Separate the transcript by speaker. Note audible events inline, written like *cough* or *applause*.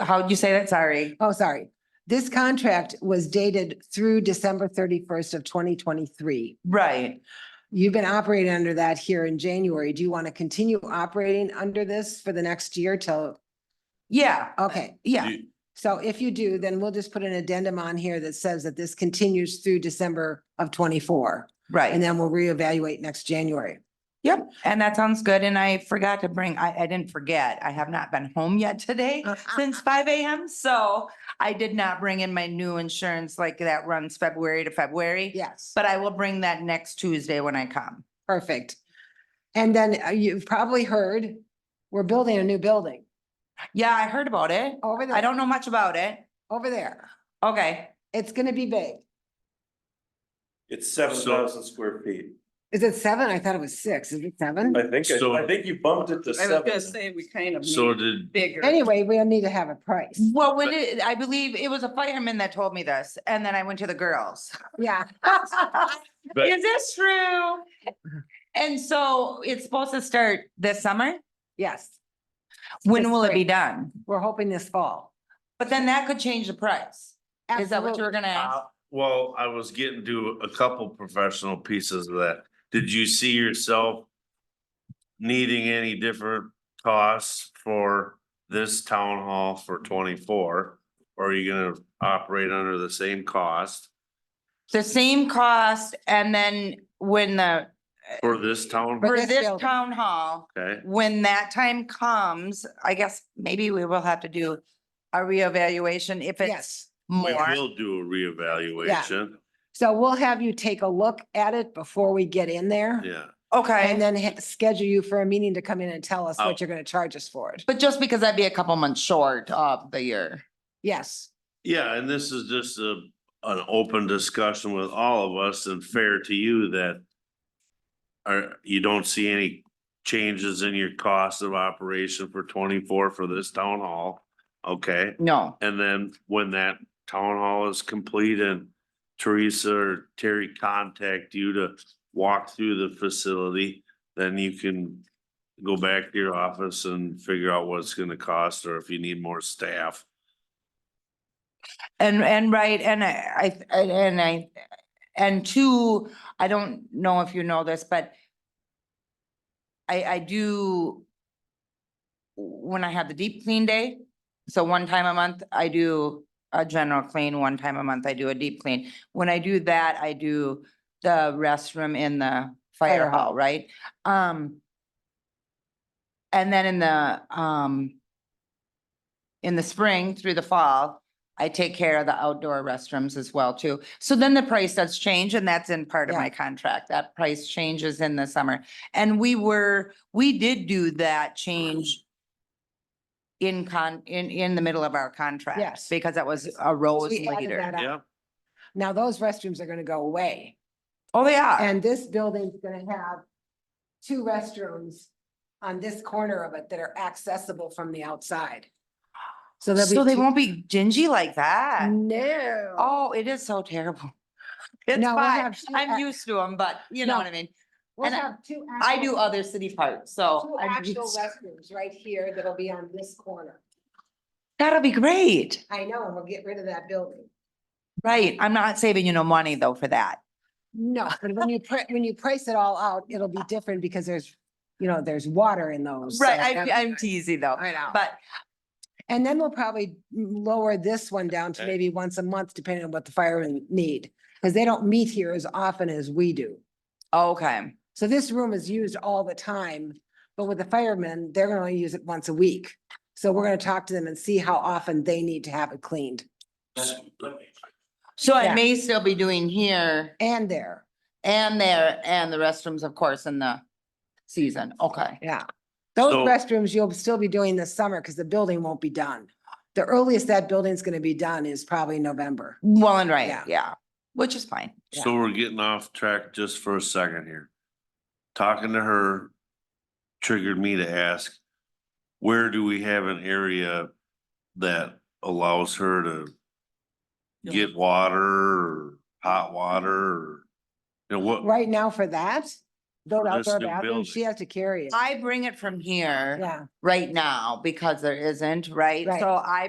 Speaker 1: How'd you say that? Sorry.
Speaker 2: Oh, sorry. This contract was dated through December thirty-first of twenty twenty-three.
Speaker 1: Right.
Speaker 2: You've been operating under that here in January. Do you want to continue operating under this for the next year till,
Speaker 1: Yeah,
Speaker 2: okay.
Speaker 1: yeah.
Speaker 3: You-
Speaker 2: So if you do, then we'll just put an addendum on here that says that this continues through December of twenty-four. And
Speaker 1: Right.
Speaker 2: then we'll reevaluate next January.
Speaker 1: Yep. And that sounds good. And I forgot to bring, I, I didn't forget. I have not been home yet today
Speaker 4: Uh, ah.
Speaker 1: since five AM. So I did not bring in my new insurance like that runs February to February.
Speaker 2: Yes.
Speaker 1: But I will bring that next Tuesday when I come.
Speaker 2: Perfect. And then uh, you've probably heard, we're building a new building
Speaker 1: Yeah, I heard about it.
Speaker 2: over
Speaker 1: I
Speaker 2: there,
Speaker 1: don't know much about it.
Speaker 2: over there.
Speaker 1: Okay.
Speaker 2: It's gonna be big.
Speaker 5: It's seven thousand square feet.
Speaker 2: Is it seven? I thought it was six. Is it seven?
Speaker 5: I think,
Speaker 3: So-
Speaker 5: I think you bumped it to
Speaker 4: I was gonna
Speaker 5: seven.
Speaker 4: say, we kind of
Speaker 3: So
Speaker 4: made
Speaker 3: did,
Speaker 4: bigger.
Speaker 2: Anyway, we'll need to have a
Speaker 1: *laughs*
Speaker 2: price.
Speaker 1: Well, when it, I believe it was a fireman that told me this and then I went to the girls.
Speaker 2: Yeah. *laughs*
Speaker 3: But-
Speaker 1: Is this true? And so it's supposed to start this summer?
Speaker 2: Yes,
Speaker 1: When
Speaker 2: This
Speaker 1: will it be
Speaker 2: spring.
Speaker 1: done?
Speaker 2: we're hoping this fall.
Speaker 1: But then that could change the price. Is that what you were gonna ask?
Speaker 3: uh, well, I was getting to a couple professional pieces of that. Did you see yourself needing any different costs for this town hall for twenty-four? Or are you gonna operate under the same cost
Speaker 1: The same cost and then when the,
Speaker 3: for this town?
Speaker 2: For
Speaker 1: for
Speaker 2: this
Speaker 1: this
Speaker 2: building.
Speaker 1: town hall,
Speaker 3: Okay,
Speaker 1: when that time comes, I guess maybe we will have to do a reevaluation if it's
Speaker 2: Yes.
Speaker 3: we
Speaker 1: more.
Speaker 3: will do a reevaluation,
Speaker 2: So we'll have you take a look at it before we get in there.
Speaker 3: yeah.
Speaker 2: And
Speaker 1: Okay,
Speaker 2: then ha- schedule you for a meeting to come in and tell us
Speaker 3: Oh.
Speaker 2: what you're gonna charge us for it.
Speaker 1: but just because that'd be a couple months short of the year.
Speaker 2: Yes,
Speaker 3: Yeah, and this is just a, an open discussion with all of us and fair to you that are, you don't see any changes in your cost of operation for twenty-four for this town hall, okay?
Speaker 1: No.
Speaker 3: And then when that town hall is complete and Teresa or Terry contact you to walk through the facility, then you can go back to your office and figure out what it's gonna cost or if you need more staff.
Speaker 1: And, and right, and I, I- and I, and two, I don't know if you know this, but I, I do, when I have the deep clean day, so one time a month, I do a general clean, one time a month, I do a deep clean. When I do that, I do the restroom in the fire
Speaker 2: Fire hall.
Speaker 1: hall, right? Um, and then in the, um, in the spring through the fall, I take care of the outdoor restrooms as well too. So then the price does change and that's in part of
Speaker 2: Yeah.
Speaker 1: my contract. That price changes in the summer. And we were, we did do that change in con, in, in the middle of our contract.
Speaker 2: Yes.
Speaker 1: Because that was a rose
Speaker 2: we added
Speaker 1: later.
Speaker 2: that up.
Speaker 3: Yeah,
Speaker 2: Now those restrooms are gonna go away
Speaker 1: Oh, they are.
Speaker 2: and this building's gonna have two restrooms on this corner of it that are accessible from the outside. So there'll be.
Speaker 1: So they
Speaker 2: two-
Speaker 1: won't be gingy like that.
Speaker 2: No.
Speaker 1: Oh, it is so terrible. *laughs* It's
Speaker 2: No, we'll
Speaker 1: fine.
Speaker 2: have two
Speaker 1: I'm
Speaker 2: ac-
Speaker 1: used to them, but you know
Speaker 2: No.
Speaker 1: what I mean?
Speaker 2: We'll
Speaker 1: and I-
Speaker 2: have two.
Speaker 1: I do
Speaker 2: actual-
Speaker 1: other city parts, so.
Speaker 2: Two
Speaker 1: I'm
Speaker 2: actual
Speaker 1: used-
Speaker 2: restrooms right here that'll be on this corner.
Speaker 1: That'll be great.
Speaker 2: I know, and we'll get rid of that building.
Speaker 1: Right, I'm not saving you no money though for that.
Speaker 2: No, but when you, pri- when you price it all out, it'll be different because there's, you know, there's water in those. so
Speaker 1: Right, I,
Speaker 2: that-
Speaker 1: I'm teasing though,
Speaker 2: I know.
Speaker 1: but
Speaker 2: And then we'll probably lower this one down to
Speaker 3: Okay.
Speaker 2: maybe once a month, depending on what the firemen need. Because they don't meet here as often as we do.
Speaker 1: okay,
Speaker 2: So this room is used all the time, but with the firemen, they're gonna only use it once a week. So we're gonna talk to them and see how often they need to have it cleaned
Speaker 1: so I
Speaker 2: Yeah.
Speaker 1: may still be doing here
Speaker 2: and there,
Speaker 1: and there and the restrooms, of course, in the season, okay.
Speaker 2: yeah. Those
Speaker 3: So-
Speaker 2: restrooms you'll still be doing this summer because the building won't be done. The earliest that building's gonna be done is probably November.
Speaker 1: Well and right,
Speaker 2: Yeah.
Speaker 1: yeah, which is fine.
Speaker 2: Yeah.
Speaker 3: so we're getting off track just for a second here. Talking to her triggered me to ask, where do we have an area that allows her to get water or hot water or, you know, what,
Speaker 2: Right now for that, those
Speaker 3: For this
Speaker 2: outdoor
Speaker 3: new
Speaker 2: bathrooms, she
Speaker 3: building.
Speaker 2: has to carry it.
Speaker 1: I bring it from here
Speaker 2: Yeah.
Speaker 1: right now because there isn't, right?
Speaker 2: Right.
Speaker 1: So I